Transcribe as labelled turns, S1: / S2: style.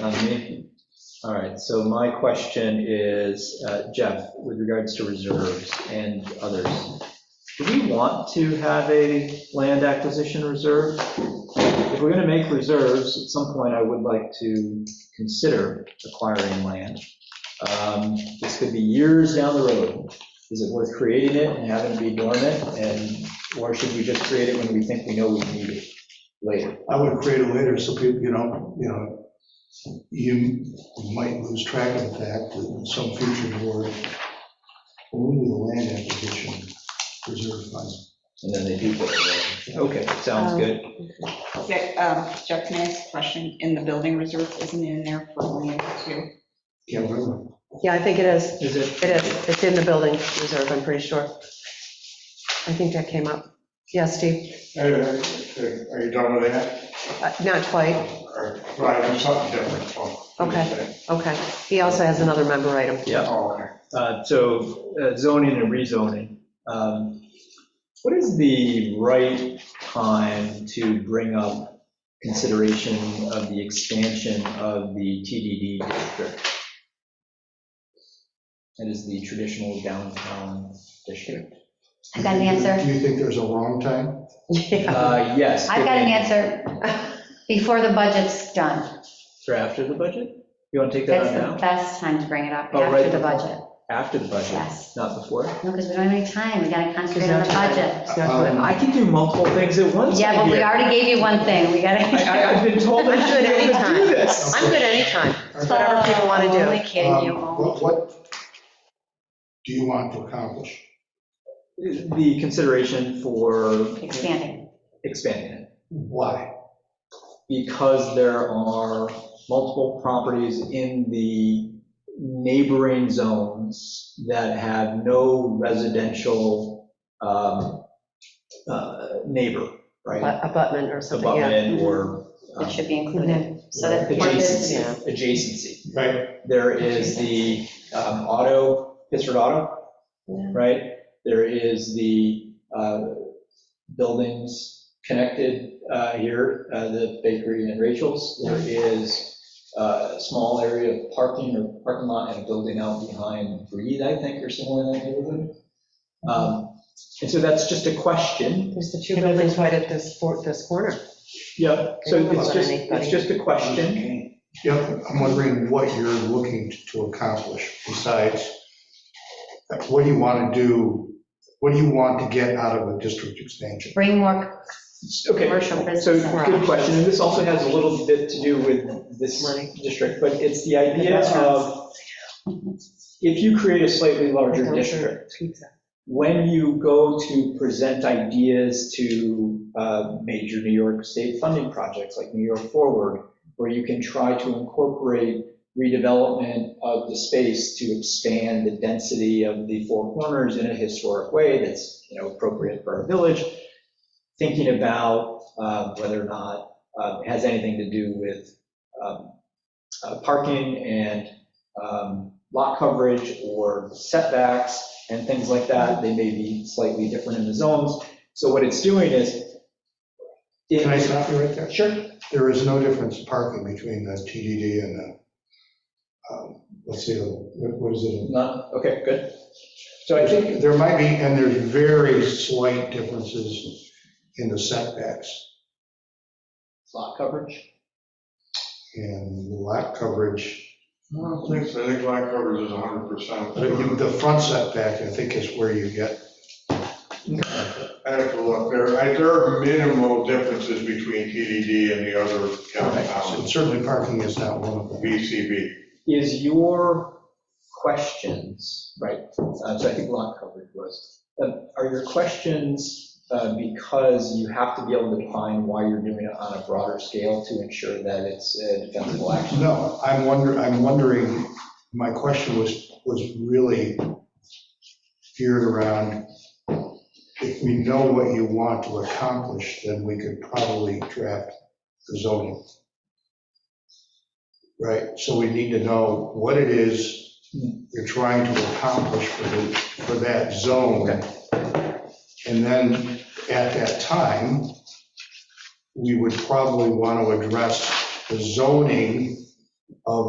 S1: On me? Uh, All right, so my question is, uh, Jeff, with regards to reserves and others, do we want to have a land acquisition reserve? If we're going to make reserves, at some point, I would like to consider acquiring land. Um, This could be years down the road. Is it worth creating it and having it be dormant? And, or should we just create it when we think we know we need it later?
S2: I would create it later so people, you know, you know, you might lose track of the fact that in some future board, only the land acquisition reserve funds.
S1: And then they do put it in. Okay, sounds
S3: Um,
S1: good.
S3: Okay, um, Jeff, can I ask a question? In the building reserve, isn't it in there for land too?
S2: Can't remember.
S4: Yeah, I think it is.
S1: Is it?
S4: It is. It's in the building reserve, I'm pretty sure. I think that came up. Yeah, Steve?
S5: Are you done with that?
S4: Uh, Not quite.
S5: Or, Right, I'm something different. oh, what do you say?
S4: Okay. He also has another member item.
S1: Yeah,
S5: Oh, okay.
S1: uh, so uh, zoning and rezoning. Um, What is the right time to bring up consideration of the expansion of the TDD district? That is the traditional downtown district.
S6: I got an answer.
S2: Do you think there's a wrong time?
S4: Yeah.
S1: Uh, Yes.
S6: I've got an answer. Before the budget's done.
S1: For after the budget? You want to take that
S6: That's
S1: on
S6: the
S1: now?
S6: best time to bring it up,
S1: Oh, right
S6: after the
S1: before.
S6: budget.
S1: After the budget,
S6: Yes.
S1: not before?
S6: No, because we don't have any time. We gotta
S4: It's
S6: concentrate on
S4: not
S6: the
S4: tonight.
S6: budget.
S4: It's not tonight.
S1: I can do multiple things at once.
S6: Yeah, but we
S1: here.
S6: already gave you one thing. We
S1: I- I- I've
S6: gotta.
S1: been told I
S4: I'm
S1: should
S4: good
S1: be able to do
S4: anytime.
S1: this.
S4: I'm good anytime. Whatever people wanna do.
S6: Oh, Only kidding you.
S2: Um, What
S6: only-
S2: what do you want to accomplish?
S1: the consideration for
S6: Expanding.
S1: expanding it,
S2: Why?
S1: because there are multiple properties in the neighboring zones that have no residential um, uh, neighbor, right?
S4: But- Abutment or something, yeah.
S1: Abutment or um,
S6: It should be included. So that.
S1: adjacency,
S4: Yeah.
S1: adjacency.
S2: Right.
S1: There is the um, auto, Pittsford Auto,
S4: Yeah.
S1: right? There is the uh, buildings connected uh, here, uh, the bakery and Rachel's. There is uh, a small area of parking or parking lot and a building out behind Breed, I think, or somewhere in that neighborhood. Um, And so that's just a question.
S4: There's the two buildings right at this, for- this corner.
S1: Yeah. So it's just, it's just a question.
S2: Yep, I'm wondering what you're looking to accomplish besides, what do you want to do? What do you want to get out of a district expansion?
S6: Bring more
S1: Okay,
S6: commercial
S1: So,
S6: business. in.
S1: good question, and this also has a little bit to do with this
S4: Money.
S1: district, but it's the idea of, if you create a slightly larger district,
S4: Pizza.
S1: when you go to present ideas to uh, major New York state funding projects like New York Forward, where you can try to incorporate redevelopment of the space to expand the density of the Four Corners in a historic way that's, you know, appropriate for our village, thinking about uh, whether or not uh, it has anything to do with um, uh, parking and um, lot coverage or setbacks and things like that. They may be slightly different in the zones. So what it's doing is. it-
S2: Can I stop you right there?
S1: Sure.
S2: There is no difference in parking between the TDD and the, um, let's see, what what is it?
S1: Not, okay, good. So I think,
S2: There might be, and there's very slight differences in the setbacks
S1: lot coverage.
S2: and lot coverage.
S5: I don't think so. I think lot coverage is 100%.
S2: The front setback, I think, is where you get
S5: I have to look, there, I- there are minimal differences between TDD and the other
S2: And
S5: downtown
S2: Certainly parking is not one of them.
S5: VCB.
S1: Is your questions, right, uh, so I think lot coverage was, um, are your questions uh, because you have to be able to define why you're doing it on a broader scale to ensure that it's a defensible action?
S2: No, I'm wondering, I'm wondering, my question was, was really geared around, if we know what you want to accomplish, then we could probably draft the zoning. Right, so we need to know what it is you're trying to accomplish for the, for that zone. And then at that time, we would probably want to address the zoning of